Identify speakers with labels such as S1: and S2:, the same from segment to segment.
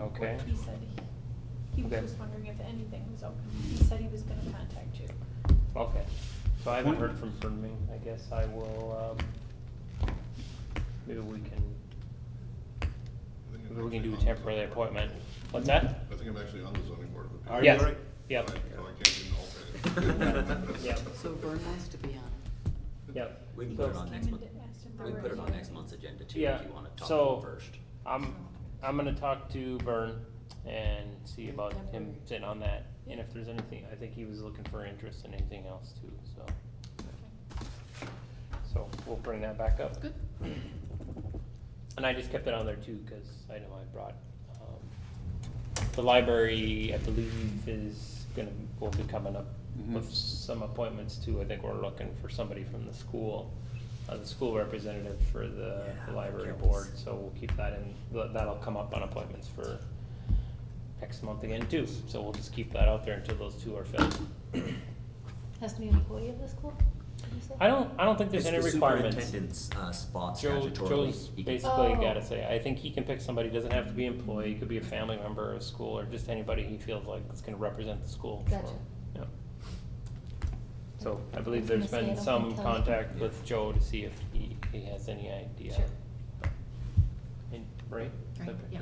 S1: Okay.
S2: He said he, he was
S1: Okay.
S2: just wondering if anything was open. He said he was gonna contact you.
S1: Okay, so I haven't heard from Fernming, I guess I will, um, maybe we can, maybe we can do a temporary appointment. What's that?
S3: I think I'm actually on the zoning board of appeals.
S4: Are you
S1: Yes,
S4: alright?
S1: yep,
S3: So I can't do an alternate.
S1: Yep.
S5: So Vern wants to be on
S1: yep.
S4: We can
S1: So-
S4: put it on next
S2: Diamond
S4: month.
S2: asked if there
S4: We
S2: were
S4: can put it on
S2: any-
S4: next month's agenda too,
S1: Yeah,
S4: if you wanna talk
S1: so-
S4: about it first.
S1: I'm, I'm gonna talk to Vern and see about him sitting on that, and if there's anything, I think he was looking for interest in anything else too, so,
S2: Okay.
S1: so we'll bring that back up.
S2: Good.
S1: And I just kept it on there too, cause I know I brought, um, the library, I believe, is gonna, will be coming up
S4: Mm-hmm.
S1: with some appointments too. I think we're looking for somebody from the school, uh, the school representative for the, the library board, so we'll keep that in, tha- that'll come up on appointments for next month again too, so we'll just keep that out there until those two are filled.
S6: Has to be an employee of the school? did you say?
S1: I don't, I don't think there's
S4: It's
S1: any
S4: the
S1: requirements.
S4: Superintendent's, uh, spot
S1: Joe,
S4: statutorily.
S1: Joe's
S4: He can-
S1: basically
S6: Oh.
S1: gotta say, I think he can pick somebody, doesn't have to be employee, could be a family member of school, or just anybody he feels like is gonna represent the school. for him.
S6: Gotcha.
S1: Yeah. So I
S6: I
S1: believe
S6: was
S1: there's
S6: gonna say, I
S1: been
S6: don't
S1: some
S6: think Kelly-
S1: contact
S4: Yeah.
S1: with Joe to see if he, he has any idea.
S6: Sure.
S1: And, right?
S6: Right,
S1: Okay,
S6: yeah.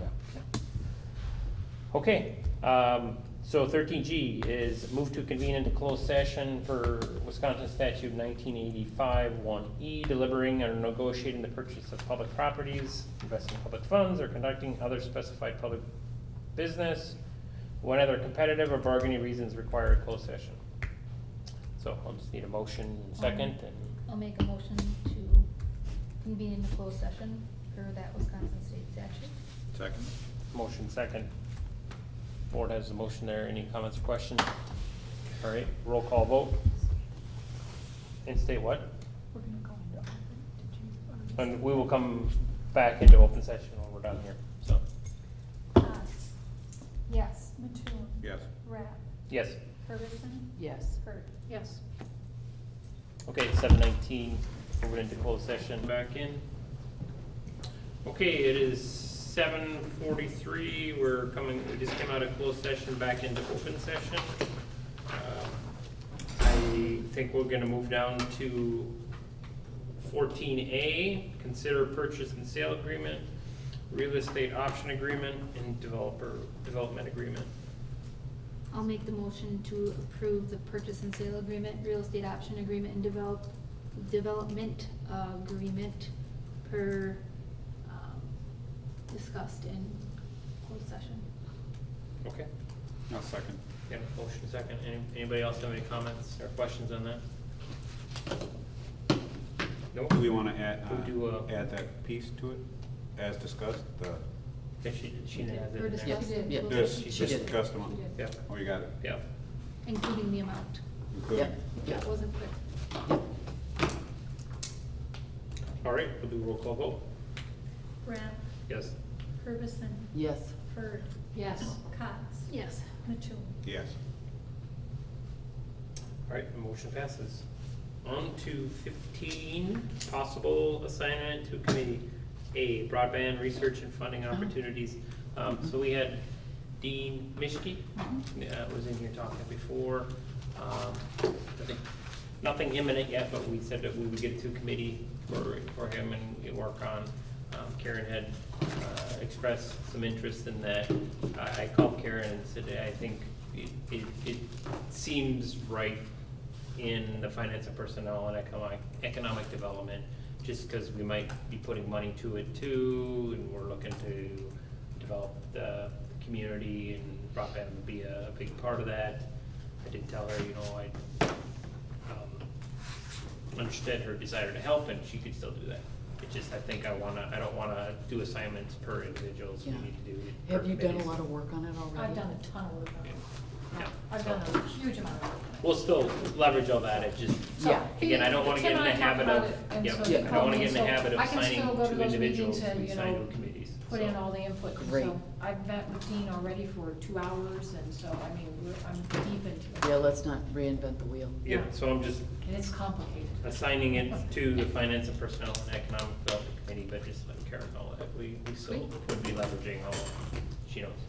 S1: Okay, um, so thirteen G is move to convene into closed session for Wisconsin statute nineteen eighty-five one E, delivering or negotiating the purchase of public properties, investing public funds, or conducting other specified public business, when other competitive or bargaining reasons require a closed session. So I'll just need a motion second and,
S6: I'll make a motion to convene in a closed session per that Wisconsin state statute.
S3: Second?
S1: motion second. Board has the motion there, any comments or questions? All right, roll call vote. And state what?
S2: We're gonna go into open, did you? already say?
S1: And we will come back into open session when we're done here, so,
S2: Haas,
S6: Yes.
S2: Mattoon.
S3: Yes.
S2: Rapp,
S1: yes.
S2: Ferguson,
S5: Yes.
S2: Hurd. Yes.
S1: Okay, seven nineteen, moving into closed session. Back in. Okay, it is seven forty-three, we're coming, we just came out of closed session, back into open session. Um, I think we're gonna move down to fourteen A, consider purchase and sale agreement, real estate option agreement, and developer, development agreement.
S6: I'll make the motion to approve the purchase and sale agreement, real estate option agreement, and develop, development agreement per, um, discussed in closed session.
S1: Okay.
S7: I'll second.
S1: Got a motion second. Any- Anybody else have any comments or questions on that? Nope.
S7: Do we want to add,
S1: We'll do, uh,
S7: uh, add that piece to it, as discussed, the,
S1: Yeah, she, she has it
S6: Or
S1: in there.
S6: discussed in
S5: Yeah.
S6: closed
S7: this,
S6: session,
S1: She
S7: this
S1: did.
S7: discussed amount?
S1: Yeah,
S7: Oh, you got it,
S1: yeah.
S6: including the amount.
S7: including,
S6: That wasn't clear.
S1: All right, we'll do roll call vote.
S2: Rapp,
S1: Yes.
S2: Ferguson,
S5: Yes.
S2: Hurd,
S5: Yes.
S2: Cots,
S6: Yes.
S2: Mattoon.
S7: yes.
S1: All right, the motion passes. On to fifteen, possible assignment to committee A, broadband research and funding opportunities. Um, so we had Dean Mishki, uh, was in here talking before. Um, I think nothing imminent yet, but we said that we would get to committee for, for him and we work on. Um, Karen had, uh, expressed some interest in that. I, I called Karen and said, I think it, it, it seems right in the finance and personnel and economic, economic development, just because we might be putting money to it too, and we're looking to develop the community, and broadband would be a big part of that. I did tell her, you know, I, um, understood her desire to help, and she could still do that. It just, I think I wanna, I don't wanna do assignments per individuals, we
S8: Yeah.
S1: need to do it per
S8: Have you done a
S1: committees.
S8: lot of work on it already?
S9: I've done a ton of work on it.
S1: Yeah.
S9: I've done a huge amount of work on it.
S1: We'll still leverage all that, it just,
S9: So,
S8: Yeah.
S1: Again, I don't wanna get in the
S9: Tim and I
S1: habit
S9: talked
S1: of,
S9: about it, and
S1: yep,
S9: so
S1: I
S8: you
S1: don't
S9: called
S1: wanna
S9: me,
S1: get in the
S9: so
S1: habit of
S9: I can
S1: assigning
S9: still go to
S1: two
S9: those
S1: individuals,
S9: meetings and,
S1: we
S9: you
S1: assign
S9: know,
S1: to committees.
S9: Put
S1: so.
S9: in all the input, and
S8: Great.
S9: so I've met with Dean already for two hours, and so, I mean, we're, I'm deep into it.
S8: Yeah, let's not reinvent the wheel.
S1: Yeah, so I'm just
S9: And it's complicated.
S1: assigning it to the Finance and Personnel and Economic Development Committee, but just let Karen know that we, we still would be leveraging all, she knows that.